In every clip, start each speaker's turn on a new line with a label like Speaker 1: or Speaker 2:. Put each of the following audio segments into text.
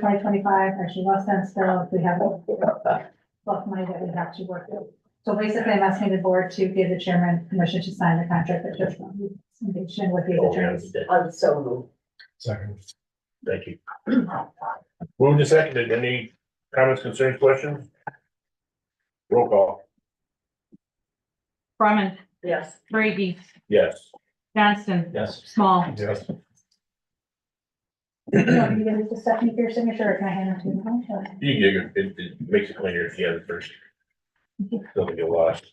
Speaker 1: twenty twenty-five, actually less than still, if we have enough money that we have to work with. So basically, I'm asking the board to give the chairman permission to sign the contract that just engaged in with these attorneys.
Speaker 2: I'm so moved.
Speaker 3: Second. Thank you. Moved and seconded. Any comments, concerns, questions? Roll call.
Speaker 4: Brumman,
Speaker 2: Yes.
Speaker 4: Brady,
Speaker 3: Yes.
Speaker 4: Johnston,
Speaker 3: Yes.
Speaker 4: Small.
Speaker 3: Yes.
Speaker 1: Do you want me to give it to Stephanie for your signature, or can I hand it to you? Or-
Speaker 3: You get your, it, it makes it cleaner if you have it first. Doesn't get lost.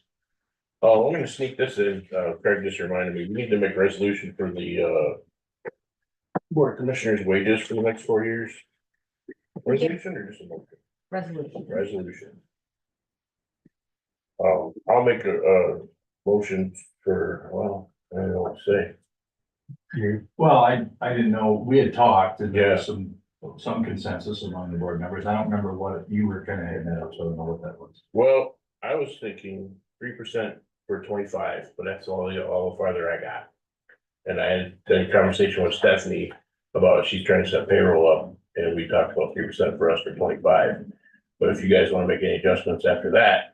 Speaker 3: Oh, I'm gonna sneak this in. Uh, Craig just reminded me, we need to make a resolution for the, uh, board of commissioners wages for the next four years. Resolution or just a motion?
Speaker 4: Resolution.
Speaker 3: resolution. Um, I'll make a, uh motion for, well, I don't know what to say.
Speaker 5: Here, well, I, I didn't know, we had talked and there
Speaker 3: Yeah.
Speaker 5: was some, some consensus among the board members. I don't remember what you were kind of hitting that up, so I don't know what that was.
Speaker 3: Well, I was thinking three percent for twenty-five, but that's all, the all the farther I got. And I had a conversation with Stephanie about she's trying to set payroll up, and we talked about three percent for us for twenty-five. But if you guys want to make any adjustments after that,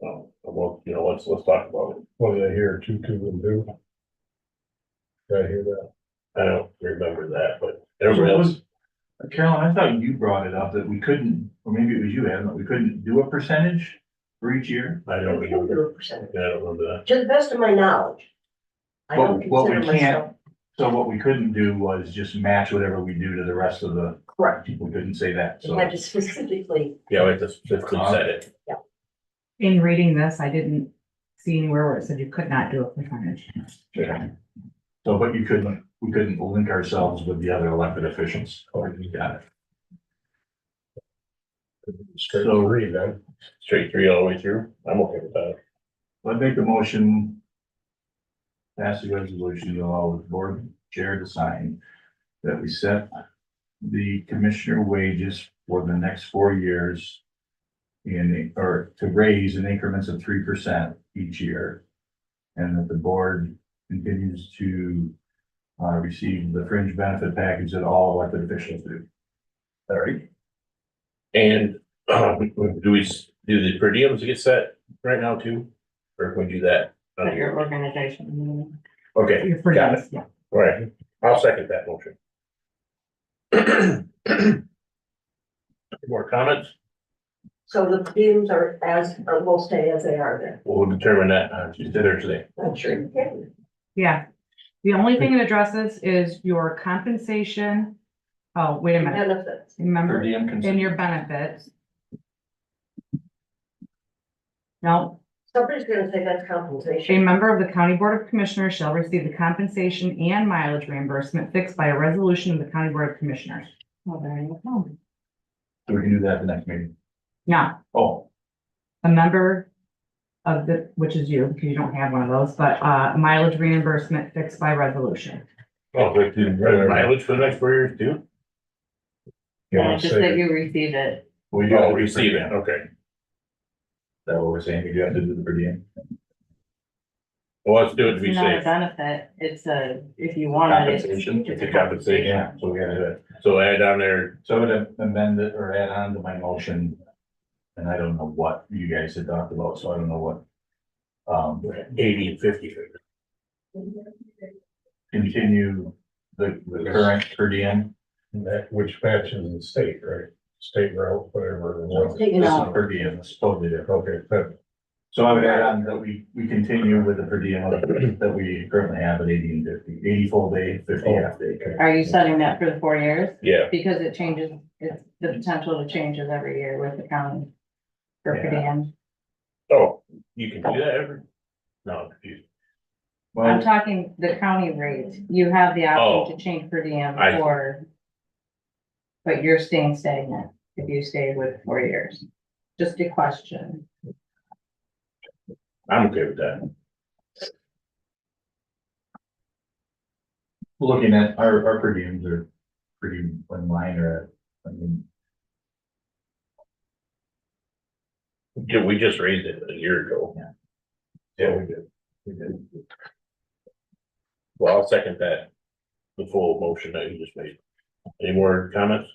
Speaker 3: well, well, you know, let's, let's talk about it.
Speaker 6: What did I hear, two, two and two? Did I hear that?
Speaker 3: I don't remember that, but everybody else.
Speaker 5: uh, Carolyn, I thought you brought it up that we couldn't, or maybe it was you, Adam, that we couldn't do a percentage for each year.
Speaker 3: I don't
Speaker 2: We can do
Speaker 3: remember.
Speaker 2: a percentage.
Speaker 3: I don't remember that.
Speaker 2: To the best of my knowledge. I don't
Speaker 5: But what we
Speaker 2: consider myself
Speaker 5: can't, so what we couldn't do was just match whatever we do to the rest of the,
Speaker 2: correct.
Speaker 5: we couldn't say that,
Speaker 2: You
Speaker 5: so.
Speaker 2: had to specifically,
Speaker 3: Yeah, we have to specifically set it.
Speaker 7: In reading this, I didn't see anywhere where it said you could not do a percentage.
Speaker 5: Yeah. So, but you couldn't, we couldn't link ourselves with the other elected officials. Oh, you got it.
Speaker 6: Straight
Speaker 5: So-
Speaker 6: three then.
Speaker 3: Straight three all the way through. I'm okay with that.
Speaker 5: I'd make the motion. Pass the resolution to allow the board chair to sign that we set the commissioner wages for the next four years. In, or to raise in increments of three percent each year. And that the board continues to uh, receive the fringe benefit package that all elected officials do. All right,
Speaker 3: And um, do we s- do the per diems get set right now too? Or can we do that? on a year?
Speaker 7: organization.
Speaker 3: Okay,
Speaker 7: Your per
Speaker 3: Got
Speaker 7: diems, yeah.
Speaker 3: all right. I'll second that motion. More comments?
Speaker 2: so the beams are as, or will stay as they are there.
Speaker 3: We'll determine that on Tuesday or today.
Speaker 2: I'm sure you can.
Speaker 7: Yeah. The only thing it addresses is your compensation. Oh, wait a minute,
Speaker 2: Benefits.
Speaker 5: per
Speaker 7: remember,
Speaker 5: diem
Speaker 7: in
Speaker 5: consent.
Speaker 7: your benefits. No,
Speaker 2: Somebody's gonna say that's compensation.
Speaker 7: A member of the County Board of Commissioners shall receive the compensation and mileage reimbursement fixed by a resolution of the County Board of Commissioners.
Speaker 4: Well, there you go.
Speaker 5: So we can do that at the next meeting.
Speaker 7: Now,
Speaker 5: Oh,
Speaker 7: a member of the, which is you, because you don't have one of those, but uh, mileage reimbursement fixed by resolution.
Speaker 3: Oh, we do mileage for the next four years too?
Speaker 6: Yeah,
Speaker 4: Just that
Speaker 6: say,
Speaker 4: you receive it.
Speaker 5: well, you
Speaker 3: Oh,
Speaker 5: gotta do
Speaker 3: receive
Speaker 5: per
Speaker 3: it.
Speaker 5: diem.
Speaker 3: Okay.
Speaker 5: Is that what we're saying? We do have to do the per diem?
Speaker 3: Well, let's do it to be
Speaker 4: It's not a
Speaker 3: safe.
Speaker 4: benefit. It's a, if you want it. it's-
Speaker 3: It's a compensation.
Speaker 5: Yeah, so we gotta do it.
Speaker 3: So add on there,
Speaker 5: So I would amend it or add on to my motion. And I don't know what you guys had talked about, so I don't know what. Um,
Speaker 3: eighty and fifty.
Speaker 5: continue the, the current per diem.
Speaker 6: that which matches the state, right? State route, whatever. it was.
Speaker 2: Taken
Speaker 5: This is
Speaker 2: out.
Speaker 5: per diem, it's totally different.
Speaker 6: Okay, that,
Speaker 5: So I would add on that we, we continue with the per diem that we currently have at eighty and fifty, eighty full day, fifty
Speaker 6: Oh.
Speaker 5: half day.
Speaker 4: Are you setting that for the four years?
Speaker 3: Yeah,
Speaker 4: Because it changes, it's the potential to changes every year with the county. For
Speaker 5: Yeah.
Speaker 4: per diem.
Speaker 3: oh, you can do that every, no, I'm confused.
Speaker 4: I'm
Speaker 5: Well,
Speaker 4: talking the county rate. You have the option to change per diem
Speaker 3: I-
Speaker 4: or. But you're staying stagnant if you stay with four years. Just a question.
Speaker 3: I'm okay with that.
Speaker 5: looking at our, our per diems are pretty in line or, I mean,
Speaker 3: Yeah, we just raised it a year ago.
Speaker 5: yeah, we did. We did.
Speaker 3: Well, I'll second that. The full motion that you just made. Any more comments?